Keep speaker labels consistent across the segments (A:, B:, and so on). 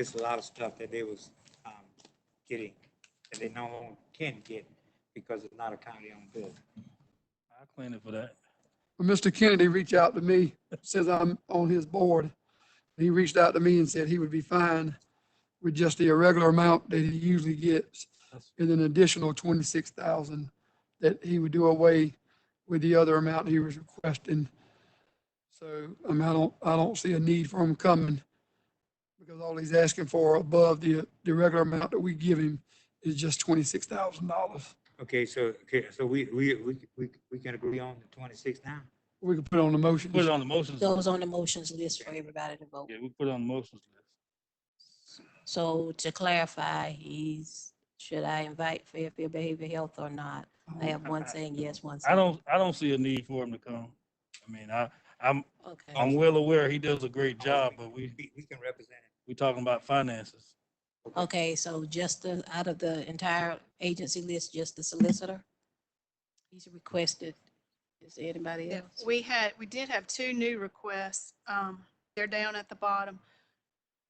A: There's a lot of stuff that they was um, getting that they no longer can get because it's not a county-owned building.
B: I'll claim it for that.
C: When Mr. Kennedy reached out to me, says I'm on his board. He reached out to me and said he would be fine with just the irregular amount that he usually gets
B: That's-
C: and an additional twenty-six thousand that he would do away with the other amount he was requesting. So, I mean, I don't, I don't see a need for him coming because all he's asking for above the, the regular amount that we give him is just twenty-six thousand dollars.
A: Okay, so, okay, so we, we, we, we we can agree on the twenty-six now?
C: We could put on the motion.
B: Put it on the motions.
D: Those on the motions list for everybody to vote.
B: Yeah, we put it on the motions list.
D: So to clarify, he's, should I invite Fairfield Behavior Health or not? I have one saying yes, one saying.
B: I don't, I don't see a need for him to come. I mean, I, I'm,
D: Okay,
B: I'm well aware he does a great job, but we,
A: We, we can represent it.
B: we talking about finances.
D: okay, so just the, out of the entire agency list, just the solicitor? He's requested, is there anybody
E: Yeah,
D: else?
E: We had, we did have two new requests. Um, they're down at the bottom.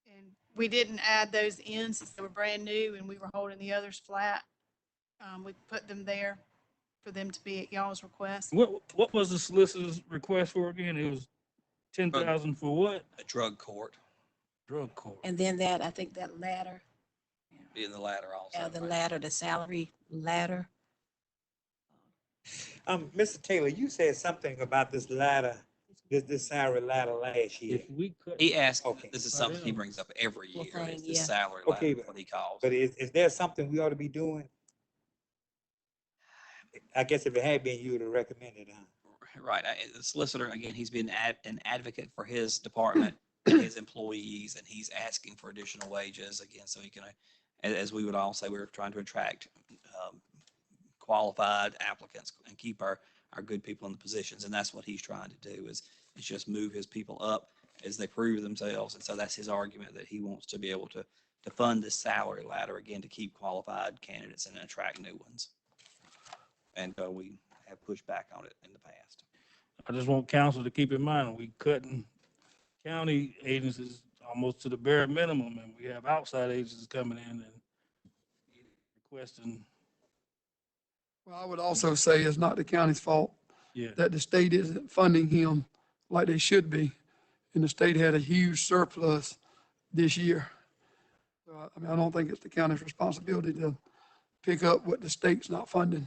E: And we didn't add those in since they were brand new and we were holding the others flat. Um, we put them there for them to be at y'all's request.
B: What, what was the solicitor's request for again? It was ten thousand for what?
F: a drug court,
B: Drug court.
D: And then that, I think that ladder,
F: be in the latter also.
D: uh, the
F: right?
D: ladder, the salary ladder.
A: Um, Mr. Taylor, you said something about this ladder, this, this salary ladder last year,
B: If we cut,
F: He asked,
A: Okay.
F: this is
B: Right
F: something he
B: on.
F: brings up every
D: Mm-hmm. Well,
F: year, is
D: thank
F: the
D: you.
F: salary
A: Okay,
F: ladder,
A: but-
F: what he calls.
A: but
F: it.
A: is, is there something we ought to be doing? I guess if it had been, you would have recommended, uh, huh?
F: Right, I- the solicitor, again, he's been ad- an advocate for his department, his employees, and he's asking for additional wages, again, so he can, uh, a- as we would all say, we're trying to attract um, qualified applicants and keep our, our good people in the positions, and that's what he's trying to do, is, is just move his people up as they prove themselves, and so that's his argument, that he wants to be able to, to fund this salary ladder, again, to keep qualified candidates and attract new ones. And uh, we have pushed back on it in the past.
B: I just want council to keep in mind, we cutting county agencies almost to the bare minimum and we have outside agencies coming in and requesting,
C: Well, I would also say it's not the county's fault
B: yeah.
C: that the state isn't funding him like they should be. And the state had a huge surplus this year. So I I mean, I don't think it's the county's responsibility to pick up what the state's not funding.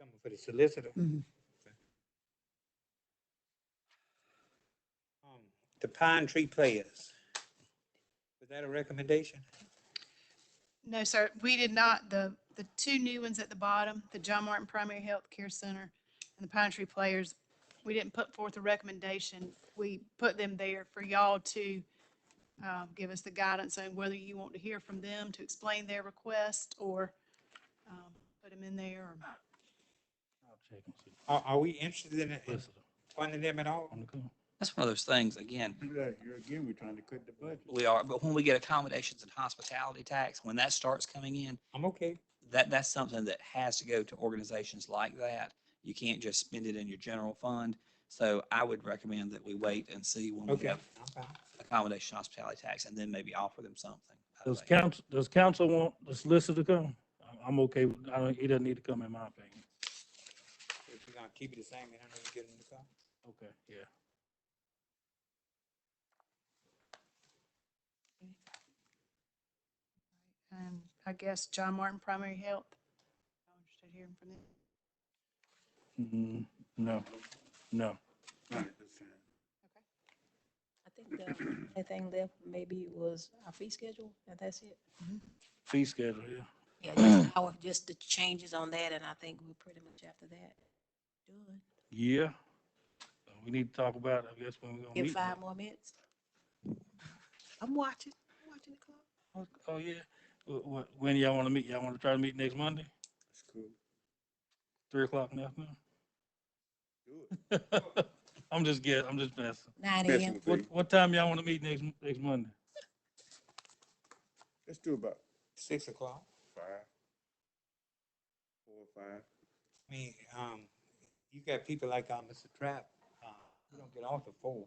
A: Coming for the solicitor.
C: Mhm.
A: Um, The Pine Tree Players. Was that a recommendation?
E: No, sir, we did not. The, the two new ones at the bottom, the John Martin Primary Health Care Center and the Pine Tree Players, we didn't put forth a recommendation. We put them there for y'all to um, give us the guidance on whether you want to hear from them to explain their request or um, put them in there. or-
B: I'll check and see.
A: Are, are we interested in in
B: Solicitor,
A: funding them at all?
B: on the call.
F: That's one of those things, again,
G: Again, we're trying to cut the budget.
F: we are, but when we get accommodations and hospitality tax, when that starts coming in,
A: I'm okay.
F: that, that's something that has to go to organizations like that. You can't just spend it in your general fund. So I would recommend that we wait and see when we
A: Okay.
F: have
A: I'm fine.
F: accommodation hospitality tax and then maybe offer them something. I
B: Does
F: think.
B: council, does council want the solicitor to come? I'm- I'm okay, with- I don't, he doesn't need to come in my opinion.
A: If we're gonna keep it the same, then I know we get them to come.
B: Okay, yeah.
E: And I guess John Martin Primary Health. I'm interested in hearing from
B: Mm,
E: them.
B: No, no.
D: I think the only thing left maybe was our fee schedule, and that's it.
B: Fee schedule, yeah.
D: Yeah, just our, just the changes on that, and I think we're pretty much after that. done.
B: Yeah. So Uh, We need to talk about, it, I guess, when we're gonna
D: Give
B: meet.
D: five more minutes. I'm watching, I'm watching the clock.
B: Oh, Oh, yeah. Wh- wh- When y'all wanna meet? Y'all wanna try to meet next Monday?
G: That's cool.
B: Three o'clock in the afternoon?
G: Do
B: I'm just guessing, I'm just messing.
D: Nine
G: Messing
D: AM,
G: with
B: What,
G: me.
B: what time y'all wanna meet next, next Monday?
G: Let's do about
A: Six o'clock.
G: five. Four, or five.
A: I mean, um, you got people like, uh, Mr. Trap, uh, we don't get off the four.